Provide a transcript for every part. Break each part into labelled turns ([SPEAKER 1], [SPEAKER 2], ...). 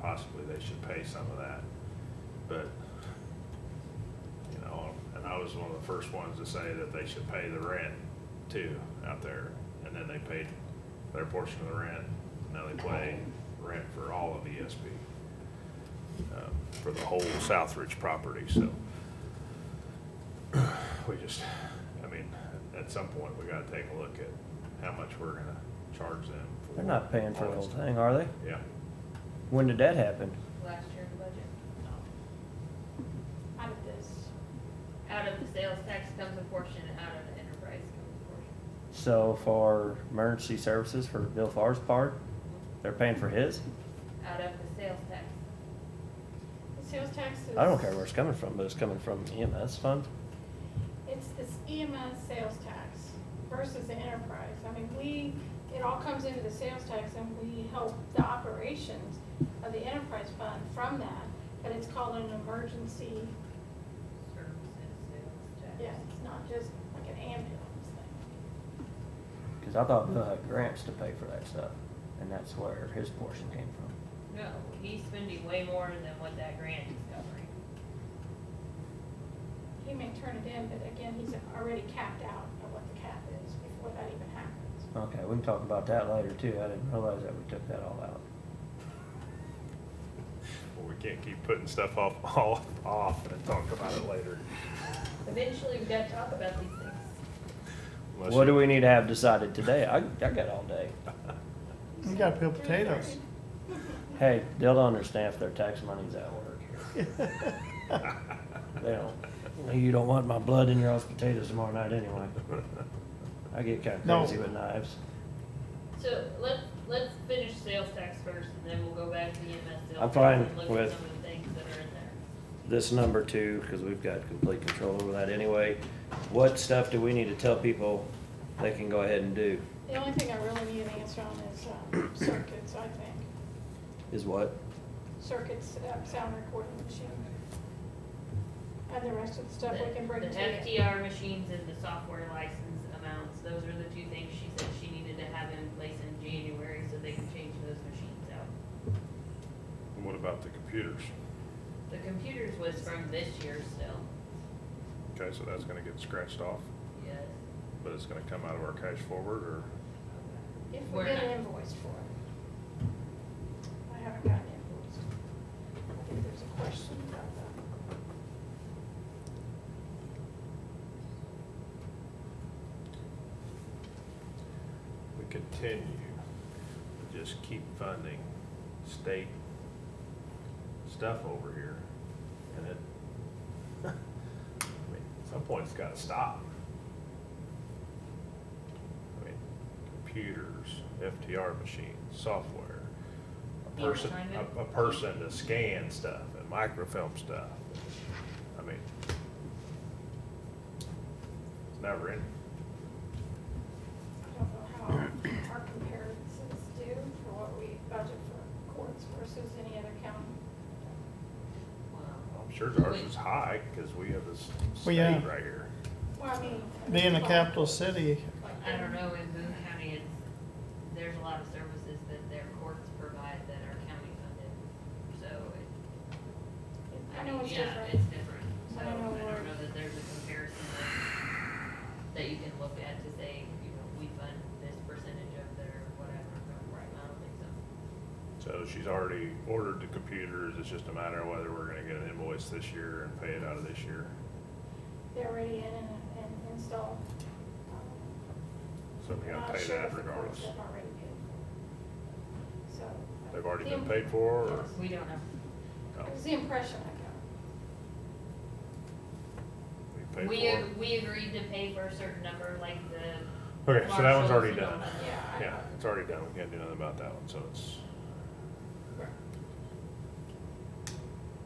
[SPEAKER 1] possibly they should pay some of that. But, you know, and I was one of the first ones to say that they should pay the rent too out there. And then they paid their portion of the rent. Now they pay rent for all of ESP, um, for the whole Southridge property, so we just, I mean, at some point, we gotta take a look at how much we're gonna charge them. for
[SPEAKER 2] They're not paying for
[SPEAKER 1] all
[SPEAKER 2] the whole
[SPEAKER 1] this.
[SPEAKER 2] thing, are they?
[SPEAKER 1] Yeah,
[SPEAKER 2] When did that happen?
[SPEAKER 3] last year in the budget.
[SPEAKER 4] Out of this,
[SPEAKER 3] Out of the sales tax comes a portion, and out of the enterprise comes a portion.
[SPEAKER 2] So for emergency services for Bill Farr's part, they're paying for his?
[SPEAKER 3] Out of the sales tax,
[SPEAKER 4] the sales tax is.
[SPEAKER 2] I don't care where it's coming from, but it's coming from EMS fund.
[SPEAKER 4] It's this EMS sales tax versus the enterprise. I mean, we, it all comes into the sales tax and we help the operations of the enterprise fund from that, but it's called an emergency,
[SPEAKER 3] services, sales tax.
[SPEAKER 4] yes, it's not just like an ambulance thing.
[SPEAKER 2] Cause I thought Bill had grants to pay for that stuff, and that's where his portion came from.
[SPEAKER 3] No, he's spending way more than what that grant is covering.
[SPEAKER 4] He may turn it in, but again, he's already capped out of what the cap is before that even happens.
[SPEAKER 2] Okay, we can talk about that later too. I didn't realize that we took that all out.
[SPEAKER 1] well, we can't keep putting stuff off, off, off and talk about it later.
[SPEAKER 3] Eventually, we've got to talk about these things.
[SPEAKER 1] Unless
[SPEAKER 2] What
[SPEAKER 1] you-
[SPEAKER 2] do we need to have decided today? I, I got all day.
[SPEAKER 5] You gotta peel potatoes.
[SPEAKER 2] Hey, they'll understand if their tax money's at work here. They don't, you don't want my blood in your all's potatoes tomorrow night anyway. I get kinda
[SPEAKER 5] No.
[SPEAKER 2] crazy with knives.
[SPEAKER 3] So let's, let's finish sales tax first, and then we'll go back to the EMS sales.
[SPEAKER 2] I'm
[SPEAKER 3] tax
[SPEAKER 2] fine
[SPEAKER 3] and Look at
[SPEAKER 2] with-
[SPEAKER 3] some of the things that are in there.
[SPEAKER 2] This number two, cause we've got complete control over that anyway. What stuff do we need to tell people they can go ahead and do?
[SPEAKER 4] The only thing I really need an answer on is um, circuits, I think.
[SPEAKER 2] Is what?
[SPEAKER 4] Circuits, uh, sound recording machine. And the rest of the stuff we can bring to
[SPEAKER 3] The
[SPEAKER 4] you.
[SPEAKER 3] FDR machines and the software license amounts, those are the two things she said she needed to have in place in January, so they can change those machines out.
[SPEAKER 1] What about the computers?
[SPEAKER 3] The computers was from this year still.
[SPEAKER 1] Okay, so that's gonna get scratched off,
[SPEAKER 3] Yes.
[SPEAKER 1] but it's gonna come out of our cash forward, or,
[SPEAKER 4] If we
[SPEAKER 3] Where-
[SPEAKER 4] get an invoice for it. I haven't gotten invoice. I think there's a question about that.
[SPEAKER 1] we continue to just keep funding state stuff over here, and it, I mean, at some point, it's gotta stop. I mean, computers, FTR machines, software, a
[SPEAKER 3] Yeah,
[SPEAKER 1] person,
[SPEAKER 3] kind of.
[SPEAKER 1] a, a person to scan stuff and microfilm stuff. I mean, it's never ending.
[SPEAKER 4] I don't know how our comparisons do for what we budget for courts versus any other county.
[SPEAKER 1] I'm sure ours is high, because we have this
[SPEAKER 5] Well,
[SPEAKER 1] state
[SPEAKER 5] yeah.
[SPEAKER 1] right here.
[SPEAKER 4] Well, I mean. I mean,
[SPEAKER 5] Being a
[SPEAKER 4] like-
[SPEAKER 5] capital city,
[SPEAKER 4] like
[SPEAKER 3] I don't know, in Boone County, it's, there's a lot of services that their courts provide that are county funded, so it,
[SPEAKER 4] I know it's
[SPEAKER 3] yeah,
[SPEAKER 4] different.
[SPEAKER 3] it's different. So
[SPEAKER 4] I
[SPEAKER 3] I don't
[SPEAKER 4] know where-
[SPEAKER 3] know that there's a comparison that- that you can look at to say, you know, we fund this percentage of their whatever, but I don't think so.
[SPEAKER 1] So she's already ordered the computers, it's just a matter of whether we're gonna get an invoice this year and pay it out of this year.
[SPEAKER 4] They're already in and, and installed.
[SPEAKER 1] So we gotta pay that regardless.
[SPEAKER 4] They've already paid for it. So. uh,
[SPEAKER 1] They've already
[SPEAKER 4] the
[SPEAKER 1] been
[SPEAKER 4] im-
[SPEAKER 1] paid for, or?
[SPEAKER 3] We don't know.
[SPEAKER 1] No,
[SPEAKER 4] It was the impression I
[SPEAKER 1] We paid
[SPEAKER 3] We,
[SPEAKER 1] for
[SPEAKER 3] ag- we agreed to pay for a certain number, like the.
[SPEAKER 1] it. Okay, so that one's
[SPEAKER 3] marshals
[SPEAKER 1] already
[SPEAKER 3] and all
[SPEAKER 1] done.
[SPEAKER 3] that.
[SPEAKER 4] got, yeah. I-
[SPEAKER 1] Yeah, it's already done, we can't do nothing about that one, so it's,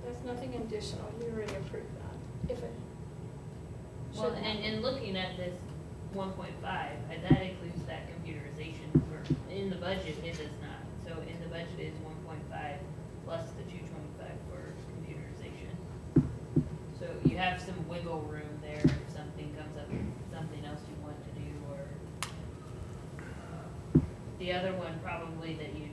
[SPEAKER 4] There's nothing additional, you already approved that, if it.
[SPEAKER 3] Well,
[SPEAKER 4] should
[SPEAKER 3] and,
[SPEAKER 4] happen.
[SPEAKER 3] and looking at this one point five, uh, that includes that computerization for, in the budget, it does not. So in the budget is one point five plus the two twenty-five for computerization. So you have some wiggle room there if something comes up, something else you want to do, or the other uh, one probably that you